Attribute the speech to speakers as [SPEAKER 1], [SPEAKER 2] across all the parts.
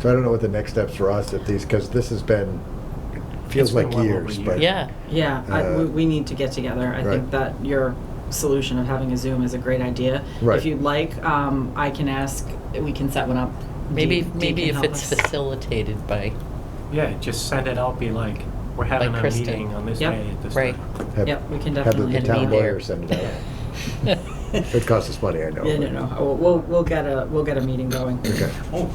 [SPEAKER 1] So I don't know what the next steps for us if these, because this has been, it feels
[SPEAKER 2] It's been
[SPEAKER 1] like
[SPEAKER 2] well over a
[SPEAKER 1] years,
[SPEAKER 2] year.
[SPEAKER 1] but.
[SPEAKER 3] Yeah.
[SPEAKER 4] Yeah, I, we,
[SPEAKER 1] Uh,
[SPEAKER 4] we need to get together. I
[SPEAKER 1] right.
[SPEAKER 4] think that your solution of having a Zoom is a great idea.
[SPEAKER 1] Right.
[SPEAKER 4] If you'd like, um, I can ask. We can set one up.
[SPEAKER 3] Maybe,
[SPEAKER 4] Dee- Dee
[SPEAKER 3] maybe
[SPEAKER 4] can
[SPEAKER 3] if
[SPEAKER 4] help
[SPEAKER 3] it's
[SPEAKER 4] us.
[SPEAKER 3] facilitated by,
[SPEAKER 2] Yeah, just send it out, be like, we're having
[SPEAKER 3] Like
[SPEAKER 2] a
[SPEAKER 3] Kristen.
[SPEAKER 2] meeting on this
[SPEAKER 4] Yep.
[SPEAKER 2] day at this
[SPEAKER 3] Right.
[SPEAKER 2] time.
[SPEAKER 1] have-
[SPEAKER 4] Yep, we can
[SPEAKER 1] Have
[SPEAKER 4] definitely
[SPEAKER 1] the
[SPEAKER 3] be
[SPEAKER 1] town
[SPEAKER 3] there.
[SPEAKER 1] lawyer send it out. It would cost us money, I know.
[SPEAKER 4] Yeah, no,
[SPEAKER 1] but-
[SPEAKER 4] no. Uh, We'll, we'll we'll get a we'll get a meeting going.
[SPEAKER 1] Okay.
[SPEAKER 2] Oh,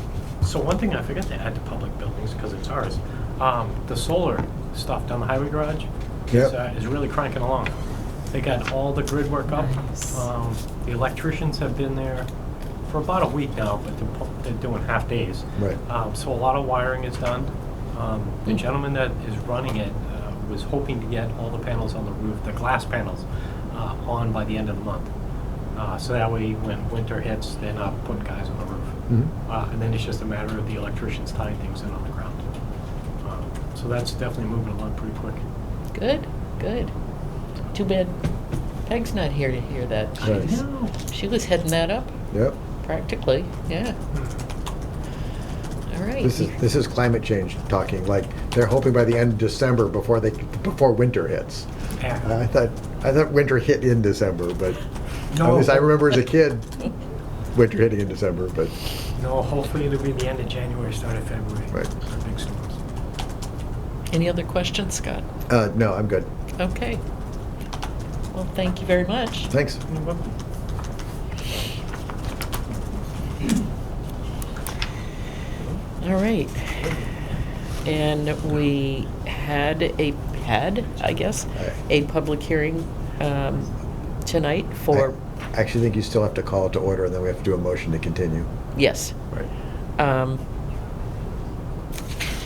[SPEAKER 2] so one thing I forgot to add to public buildings, because it's ours, um, the solar stuff down the highway garage
[SPEAKER 1] Yep.
[SPEAKER 2] is, uh, is really cranking along. They got all the grid work up.
[SPEAKER 4] Nice.
[SPEAKER 2] Um, The electricians have been there for about a week now, but they're pu- they're doing half days.
[SPEAKER 1] Right.
[SPEAKER 2] Um, So a lot of wiring is done. Um, The gentleman that is running it uh, was hoping to get all the panels on the roof, the glass panels, uh, on by the end of the month. Uh, So that way, when winter hits, they're not putting guys on the roof.
[SPEAKER 1] Mhm.
[SPEAKER 2] Uh, And then it's just a matter of the electricians tying things in on the ground. Uh, So that's definitely moving along pretty quick.
[SPEAKER 3] good, good. Too bad Peg's not here to hear that. She
[SPEAKER 1] Right.
[SPEAKER 3] was- She was heading that up
[SPEAKER 1] Yep.
[SPEAKER 3] practically, yeah.
[SPEAKER 4] Hmm.
[SPEAKER 3] All right.
[SPEAKER 1] This is, this is climate change talking, like, they're hoping by the end of December before they, before winter hits.
[SPEAKER 2] Yeah.
[SPEAKER 1] I thought, I thought winter hit in December, but, at
[SPEAKER 2] No.
[SPEAKER 1] least I remember as a kid, winter hitting in December, but,
[SPEAKER 2] No, hopefully it'll be the end of January, start of February.
[SPEAKER 1] Right.
[SPEAKER 2] for Big storms.
[SPEAKER 3] Any other questions, Scott?
[SPEAKER 1] uh, no, I'm good.
[SPEAKER 3] Okay. Well, thank you very much.
[SPEAKER 1] Thanks.
[SPEAKER 3] All right. And we had a, had, I guess, a public hearing um, tonight for,
[SPEAKER 1] I actually think you still have to call it to order, and then we have to do a motion to continue.
[SPEAKER 3] yes.
[SPEAKER 1] Right.
[SPEAKER 3] Um,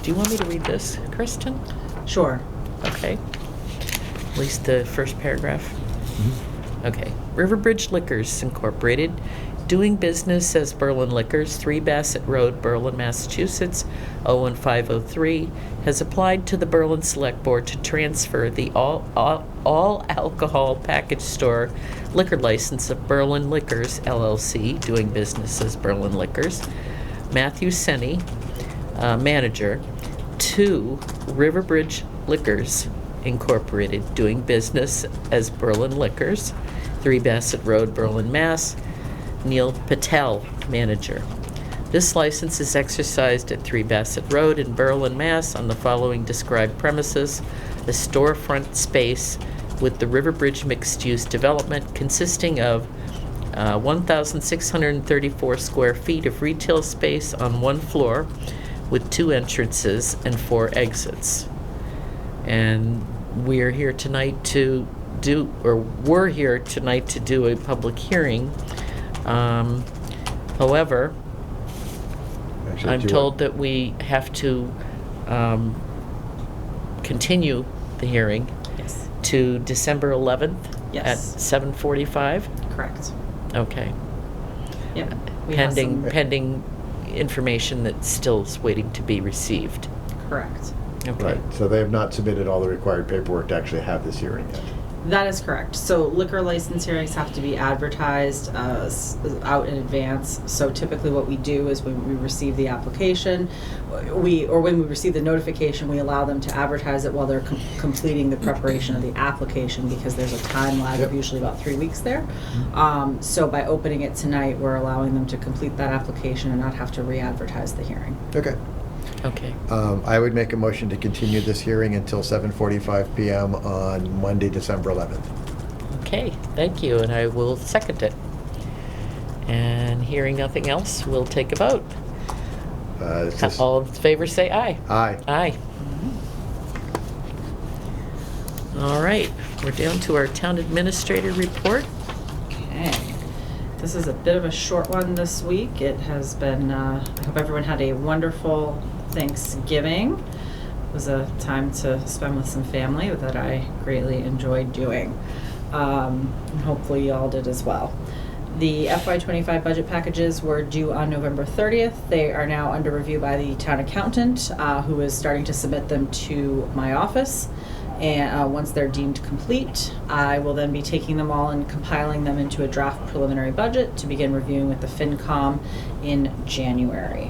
[SPEAKER 3] Do you want me to read this, Kristen?
[SPEAKER 4] Sure.
[SPEAKER 3] Okay. At least the first paragraph. Okay. Riverbridge Liquors Incorporated, doing business as Berlin Liquors, 3 Bassett Road, Berlin, Massachusetts, 01503, has applied to the Berlin Select Board to transfer the all- all all alcohol package store liquor license of Berlin Liquors LLC, doing business as Berlin Liquors, Matthew Senni, uh, manager, to Riverbridge Liquors Incorporated, doing business as Berlin Liquors, 3 Bassett Road, Berlin, Mass. Neil Patel, manager. This license is exercised at 3 Bassett Road in Berlin, Mass. on the following described premises, a storefront space with the Riverbridge mixed-use development consisting of uh, 1,634 square feet of retail space on one floor with two entrances and four exits. And we're here tonight to do, or we're here tonight to do a public hearing. Um, However,
[SPEAKER 1] Actually,
[SPEAKER 3] I'm
[SPEAKER 1] do it.
[SPEAKER 3] told that we have to um, continue the hearing
[SPEAKER 4] Yes.
[SPEAKER 3] to December 11th at
[SPEAKER 4] Yes.
[SPEAKER 3] 7:45?
[SPEAKER 4] Correct.
[SPEAKER 3] Okay.
[SPEAKER 4] Yep. We have
[SPEAKER 3] pending,
[SPEAKER 4] some-
[SPEAKER 3] pending information that still is waiting to be received.
[SPEAKER 4] Correct.
[SPEAKER 3] Okay.
[SPEAKER 1] Right, so they have not submitted all the required paperwork to actually have this hearing yet.
[SPEAKER 4] That is correct. So liquor license hearings have to be advertised uh, s- out in advance. So typically what we do is when we receive the application, we, or when we receive the notification, we allow them to advertise it while they're com- completing the preparation of the application because there's a time lag
[SPEAKER 1] Yep.
[SPEAKER 4] of usually about three weeks there. Um, So by opening it tonight, we're allowing them to complete that application and not have to re-advertise the hearing.
[SPEAKER 1] Okay.
[SPEAKER 3] Okay.
[SPEAKER 1] Um, I would make a motion to continue this hearing until 7:45 PM on Monday, December 11th.
[SPEAKER 3] Okay, thank you, and I will second it. And hearing nothing else, we'll take a vote.
[SPEAKER 1] Uh, this is-
[SPEAKER 3] All in favor, say aye.
[SPEAKER 1] Aye.
[SPEAKER 3] Aye. All right, we're down to our town administrator report.
[SPEAKER 4] Okay. This is a bit of a short one this week. It has been, uh, I hope everyone had a wonderful Thanksgiving. It was a time to spend with some family that I greatly enjoyed doing. Um, and hopefully, you all did as well. The FY25 budget packages were due on November 30th. They are now under review by the town accountant, uh, who is starting to submit them to my office. And uh, once they're deemed complete, I will then be taking them all and compiling them into a draft preliminary budget to begin reviewing with the FinCom in January.